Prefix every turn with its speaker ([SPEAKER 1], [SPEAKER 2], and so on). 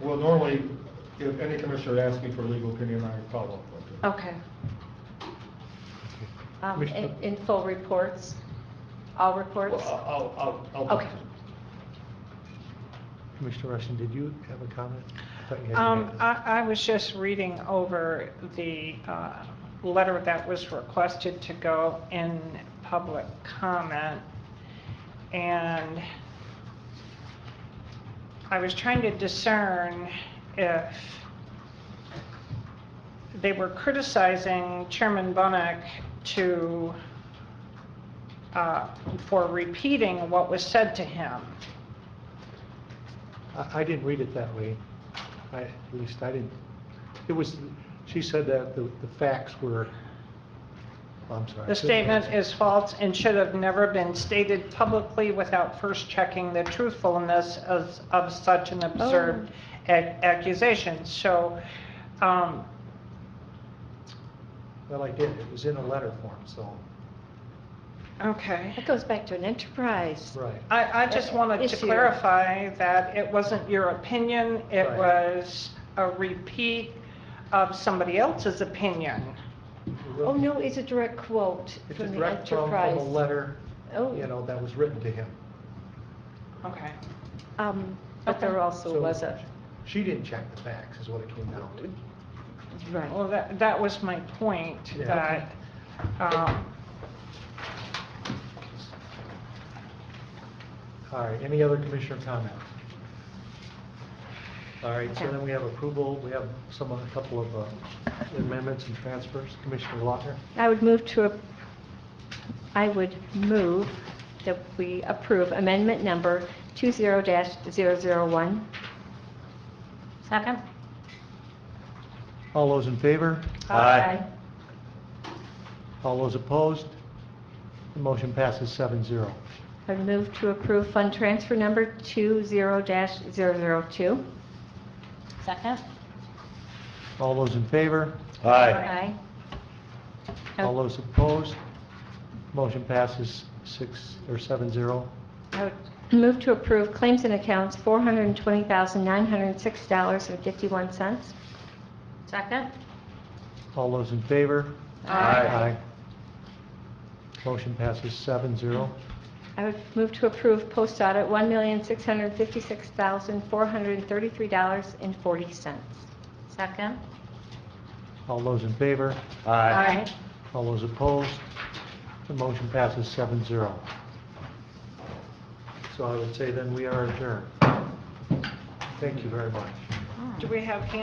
[SPEAKER 1] Well, normally, if any commissioner asks me for a legal opinion, I follow up with it.
[SPEAKER 2] Okay. Um, in, in full reports, all reports?
[SPEAKER 1] Well, I'll, I'll- I'll, I'll.
[SPEAKER 2] Okay.
[SPEAKER 3] Commissioner Rushing, did you have a comment? I thought you had your
[SPEAKER 4] Um,
[SPEAKER 3] hand up.
[SPEAKER 4] I, I was just reading over the, uh, letter that was requested to go in public comment. And I was trying to discern if they were criticizing Chairman Bunnick to, uh, for repeating what was said to him.
[SPEAKER 3] I, I didn't read it that way. I, at least I didn't. It was, she said that the, the facts were, I'm sorry.
[SPEAKER 4] The statement is false and should have never been stated publicly without first checking the truthfulness of, of such an absurd ac- accusation. So, um,
[SPEAKER 3] Well, I did. It was in a letter form, so,
[SPEAKER 4] okay.
[SPEAKER 2] That goes back to an enterprise.
[SPEAKER 3] uh, right.
[SPEAKER 4] I, I just wanted
[SPEAKER 2] Issue.
[SPEAKER 4] to clarify that it wasn't your opinion, it
[SPEAKER 3] Right.
[SPEAKER 4] was a repeat of somebody else's opinion.
[SPEAKER 2] Oh, no, it's a direct quote
[SPEAKER 3] It's a
[SPEAKER 2] from the
[SPEAKER 3] direct from, from a
[SPEAKER 2] enterprise.
[SPEAKER 3] letter,
[SPEAKER 2] Oh.
[SPEAKER 3] you know, that was written to him.
[SPEAKER 4] Okay.
[SPEAKER 2] Um, but there
[SPEAKER 4] Okay.
[SPEAKER 2] also
[SPEAKER 3] So-
[SPEAKER 2] was a,
[SPEAKER 3] She didn't check the facts, is what it came down to.
[SPEAKER 2] right. Oh.
[SPEAKER 4] Well, that, that was my point,
[SPEAKER 3] Yeah.
[SPEAKER 4] that, um,
[SPEAKER 3] All right, any other commissioner comment? All right, so
[SPEAKER 2] Okay.
[SPEAKER 3] then we have approval, we have some, a couple of uh, amendments and transfers. Commissioner Lautner?
[SPEAKER 2] I would move to, a- I would move that we approve amendment number 20-001. Second?
[SPEAKER 3] All those in favor?
[SPEAKER 2] Aye.
[SPEAKER 3] All those opposed? The motion passes seven zero.
[SPEAKER 2] I would move to approve fund transfer number 20-002. Second?
[SPEAKER 3] All those in favor?
[SPEAKER 2] Aye.
[SPEAKER 3] All those opposed? Motion passes six, or seven zero.
[SPEAKER 2] I would Move to approve claims and accounts, $420,906.51. Second.
[SPEAKER 3] All those in favor?
[SPEAKER 4] Aye.
[SPEAKER 3] Motion passes seven zero.
[SPEAKER 2] I would move to approve post audit, $1,656,433.40. Second.
[SPEAKER 3] All those in favor?
[SPEAKER 2] Aye.
[SPEAKER 3] All those opposed? The motion passes seven zero. So I would say then we are adjourned. Thank you very much.
[SPEAKER 4] do we have hands